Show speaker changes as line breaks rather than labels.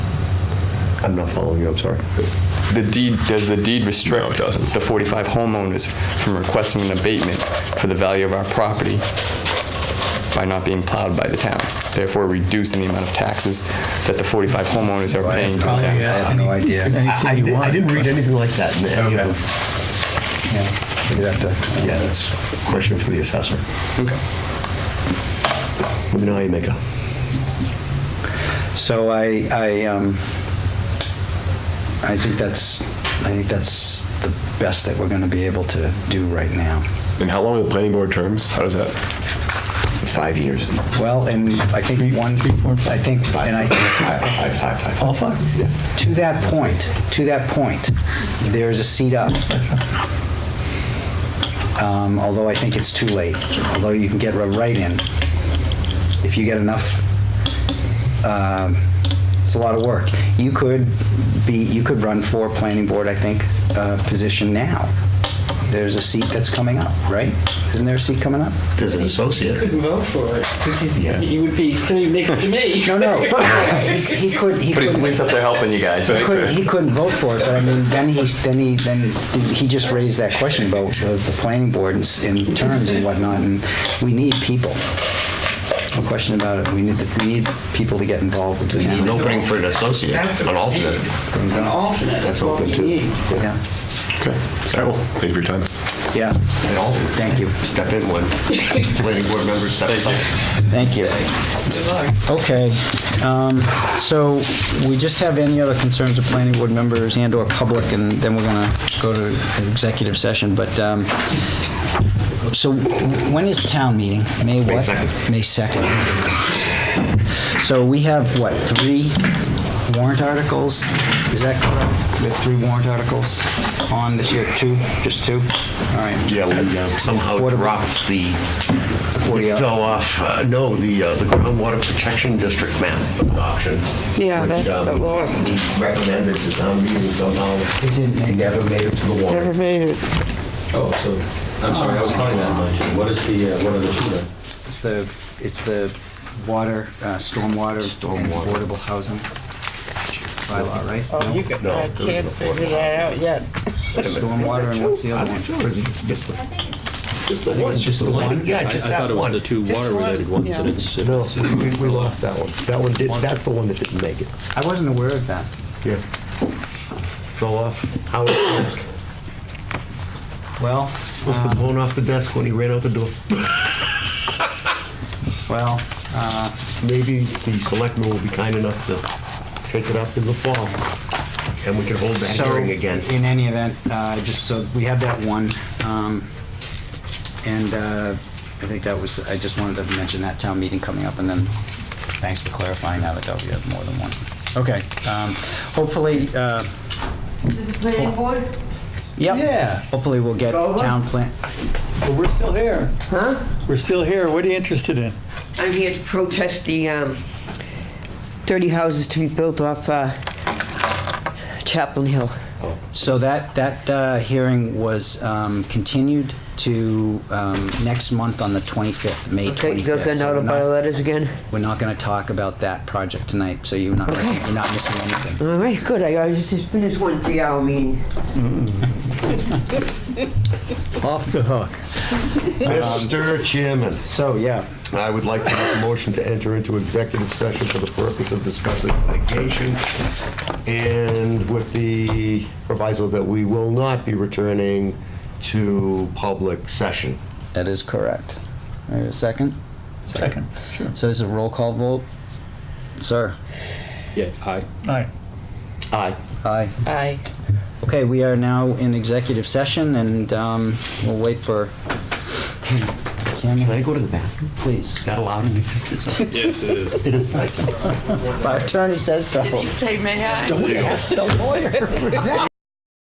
I'm not following you, I'm sorry.
The deed, does the deed restrict?
No, it doesn't.
The 45 homeowners from requesting an abatement for the value of our property by not being plowed by the town, therefore reducing the amount of taxes that the 45 homeowners are paying to the
Probably,
town?
I
yeah.
have no idea. I
you
didn't- I
want.
didn't read anything like that in any of
Okay.
them.
Yeah.
You'd have to- Yeah, that's a question for the assessor.
Okay.
Let me know how you make out.
So I, I, um, I think that's, I think that's the best that we're going to be able to do right now.
And how long are the planning board terms? How does that?
Five years.
Well, and I think one, I think, and I think
Five, five, five, five.
All five? To that point, to that point, there is a seat up. Um, Although I think it's too late, although you can get a write-in. If you get enough, um, it's a lot of work. You could be, you could run for planning board, I think, uh, position now. There's a seat that's coming up, right? Isn't there a seat coming up?
There's an associate.
couldn't vote for it because he's,
Yeah.
he would be sitting next to me.
No, no. He he could, he
But
could.
he's at least up there helping you guys,
He couldn't,
right?
he couldn't vote for it, but I mean, then he, then he, then he just raised that question about the, the planning board and s- and terms and whatnot, and we need people. No question about it, we need, the- we need people to get involved with the
There's
town.
no bring for an associate,
That's
an
what we
alternate.
need. An alternate.
That's
is what
open
we
too.
need.
Yeah,
Okay. All right. Well, thank you for your time.
yeah,
An alternate.
Thank you.
Step in one. Planning board member steps up.
thank you. Okay, um, so we just have any other concerns of planning board members and or public, and then we're gonna go to executive session, but, um, so when is town meeting? May what?
2nd.
May 2nd. So we have, what, three warrant articles? Is that correct? We have three warrant articles on this year, two, just two? All right.
Yeah, we uh, somehow
What about-
dropped the,
What do
we
you-
fell off, uh, no, the uh, the groundwater protection district map option.
Yeah,
which,
that's the
um,
lowest.
we Recommended to town meeting somehow. It
didn't make it.
Never made it to the
Never
warrant.
made it.
Oh, so, I'm sorry, I was counting that much. What is the, uh, what are the two then?
It's the, it's the water, uh, stormwater and
Stormwater.
affordable housing bylaw, right?
Oh, you can,
No,
I
there's
can't
no
figure that out yet.
Stormwater and what's the other one?
Sure, is it just the, just the
It's just the one?
Yeah,
I-
just
I thought
that
it was
one.
the two water-related ones, and it's, it
No,
was-
we, we lost that one. That one did, that's the one that didn't make it.
I wasn't aware of that.
Yeah. Fell off Howard's desk.
Well, uh,
Must have blown off the desk when he ran out the door.
well,
Maybe the selectmen will be kind enough to take it up in the fall, and we can hold that
so,
hearing again.
in any event, uh, just so, we have that one, um, and, uh, I think that was, I just wanted to mention that town meeting coming up, and then, thanks for clarifying now that we have more than one. Okay, um, hopefully, uh, Oh.
Does the planning board?
yep.
Yeah.
Hopefully we'll get
Over.
town plan,
But we're still here. Huh? We're still here. What are you interested in?
I'm here to protest the um, 30 houses to be built off uh, Chaplain Hill.
So that, that uh, hearing was um, continued to um, next month on the 25th, May 25th.
Okay, you'll send
So
out
we're
a
not-
bunch of letters again?
We're not going to talk about that project tonight, so you're not, missing- you're not missing anything.
All right, good, I I just just finished one three-hour meeting.
Off the hook.
Mr. Chairman,
So, yeah,
Um, I would like to make a motion to enter into executive session for the purpose of discussing litigation, and with the proviso that we will not be returning to public session.
that is correct. All right, a second?
Second. Sure.
So this is a roll call vote? Sir?
yeah, aye.
All right.
Aye.
Aye.
Aye.
Okay, we are now in executive session, and um, we'll wait for...
Can
Cameron,
I go to the bathroom? Is
please.
that allowed in executive session? Yes, it is. It is, thank you.
Our attorney says so.
Say, may I?
Don't ask the lawyer.